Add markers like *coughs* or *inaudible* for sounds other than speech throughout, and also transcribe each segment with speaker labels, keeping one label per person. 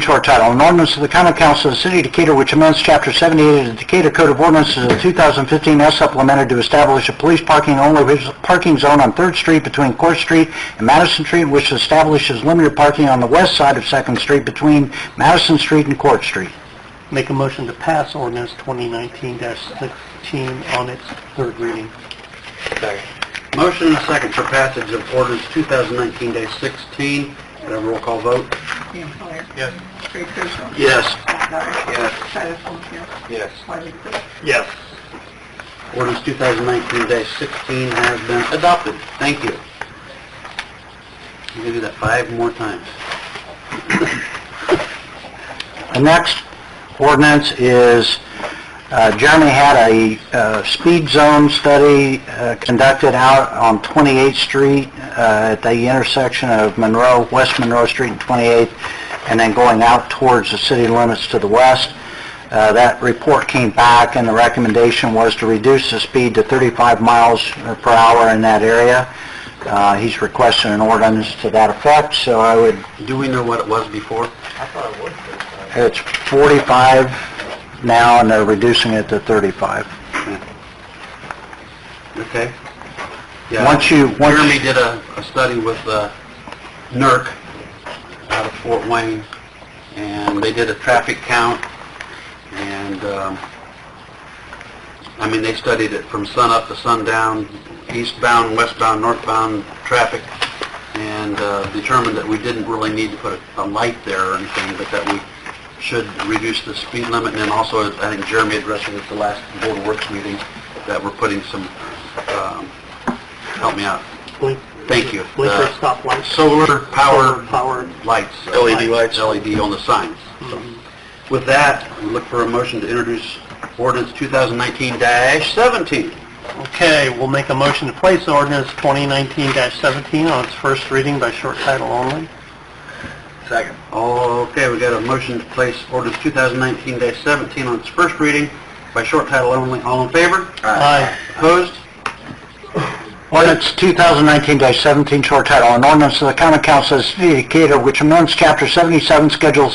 Speaker 1: to our title, an ordinance of the common council of the city of Decatur which amends chapter 78 of the Decatur Code of Ordinances of 2015 as supplemented to establish a police parking only res- parking zone on Third Street between Court Street and Madison Street, which establishes limited parking on the west side of Second Street between Madison Street and Court Street.
Speaker 2: Make a motion to pass ordinance 2019-16 on its third reading.
Speaker 3: Motion and a second for passage of ordinance 2019-16. Can I have a roll call vote?
Speaker 4: Ian Collier.
Speaker 3: Yes.
Speaker 4: Craig Koshaw.
Speaker 3: Yes.
Speaker 4: Matt Dyer.
Speaker 3: Yes.
Speaker 4: Tyler Fulham-Camp.
Speaker 3: Yes.
Speaker 4: Wiley Sear.
Speaker 3: Yes. Ordinance 2019-16 has been adopted. Thank you. You can do that five more times. *coughs*
Speaker 1: The next ordinance is, uh, Jeremy had a uh, speed zone study uh, conducted out on 28th Street uh, at the intersection of Monroe, West Monroe Street and 28th, and then going out towards the city limits to the west. Uh, That report came back, and the recommendation was to reduce the speed to 35 miles uh, per hour in that area. Uh, He's requesting an ordinance to that effect, so I would
Speaker 3: Do we know what it was before?
Speaker 1: it's 45 now, and they're reducing it to 35.
Speaker 3: Okay. Yeah.
Speaker 1: Once you, once,
Speaker 3: Jeremy did a, a study with, uh, NERC out of Fort Wayne, and they did a traffic count, and, um, I mean, they studied it from sunup to sundown, eastbound, westbound, northbound traffic, and, uh, determined that we didn't really need to put a, a light there or anything, but that we should reduce the speed limit, and then also, I think Jeremy addressed it at the last Board of Works meeting, that we're putting some, um, help me out,
Speaker 2: Blink-
Speaker 3: Thank you.
Speaker 2: Blinker
Speaker 3: Uh,
Speaker 2: stoplights.
Speaker 3: solar power E
Speaker 2: Powered.
Speaker 3: lights. Mm-hmm.
Speaker 2: LED lights.
Speaker 3: LED on the signs. So, With that, we look for a motion to introduce ordinance 2019-17.
Speaker 2: Okay, we'll make a motion to place ordinance 2019-17 on its first reading by short title only.
Speaker 3: Second. Okay, we got a motion to place ordinance 2019-17 on its first reading by short title only. All in favor?
Speaker 2: Aye.
Speaker 3: Opposed?
Speaker 1: ordinance 2019-17, short title, an ordinance of the common council of the city of Decatur which amends chapter 77, schedule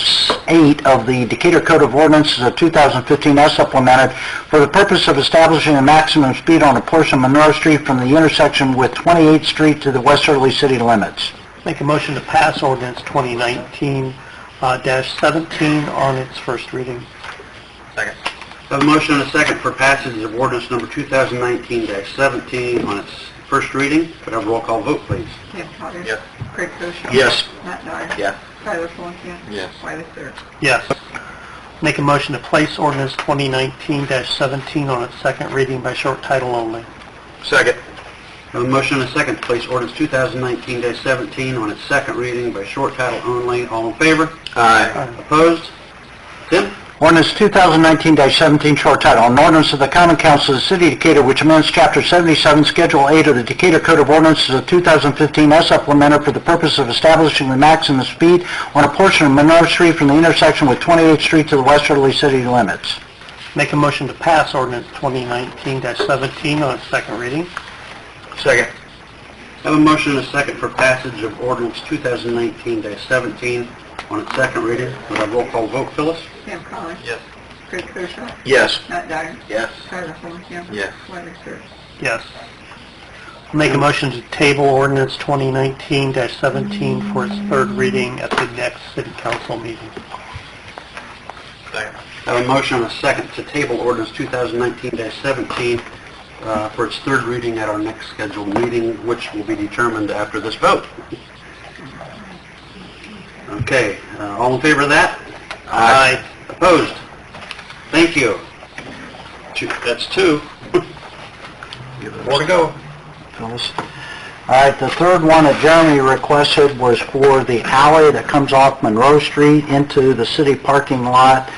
Speaker 1: 8 of the Decatur Code of Ordinances of 2015 as supplemented for the purpose of establishing a maximum speed on a portion of Monroe Street from the intersection with 28th Street to the westerly city limits.
Speaker 2: Make a motion to pass ordinance 2019-17 on its first reading.
Speaker 3: Second. Have a motion and a second for passage of ordinance number 2019-17 on its first reading. Could I have a roll call vote, please?
Speaker 4: Ian Collier.
Speaker 3: Yes.
Speaker 4: Craig Koshaw.
Speaker 3: Yes.
Speaker 4: Matt Dyer.
Speaker 3: Yes.
Speaker 4: Tyler Fulham-Camp.
Speaker 3: Yes.
Speaker 4: Wiley Sear.
Speaker 2: Yes. Make a motion to place ordinance 2019-17 on its second reading by short title only.
Speaker 3: Second. Have a motion and a second to place ordinance 2019-17 on its second reading by short title only. All in favor?
Speaker 2: Aye.
Speaker 3: Opposed? Tim?
Speaker 1: Ordinance 2019-17, short title, an ordinance of the common council of the city of Decatur which amends chapter 77, schedule 8 of the Decatur Code of Ordinances of 2015 as supplemented for the purpose of establishing the maximum speed on a portion of Monroe Street from the intersection with 28th Street to the westerly city limits.
Speaker 2: Make a motion to pass ordinance 2019-17 on its second reading.
Speaker 3: Second. Have a motion and a second for passage of ordinance 2019-17 on its second reading. Would I roll call vote, Phyllis?
Speaker 4: Ian Collier.
Speaker 3: Yes.
Speaker 4: Craig Koshaw.
Speaker 3: Yes.
Speaker 4: Matt Dyer.
Speaker 3: Yes.
Speaker 4: Tyler Fulham-Camp.
Speaker 3: Yes.
Speaker 4: Wiley Sear.
Speaker 2: Yes. Make a motion to table ordinance 2019-17 for its third reading at the next city council meeting.
Speaker 3: Second. Have a motion and a second to table ordinance 2019-17 uh, for its third reading at our next scheduled meeting, which will be determined after this vote. Okay, uh, all in favor of that? Aye. Opposed? Thank you. Two- That's two. *laughs* More to go.
Speaker 1: Phyllis. All right, the third one that Jeremy requested was for the alley that comes off Monroe Street into the city parking lot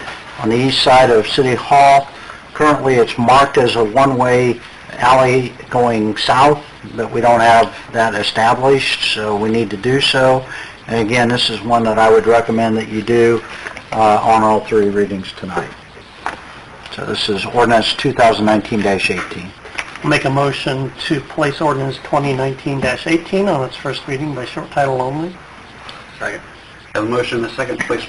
Speaker 1: on the east side of City Hall. Currently, it's marked as a one-way alley going south, but we don't have that established, so we need to do so. And again, this is one that I would recommend that you do uh, on all three readings tonight. So this is ordinance 2019-18.
Speaker 2: Make a motion to place ordinance 2019-18 on its first reading by short title only.
Speaker 3: Have a motion and a second to place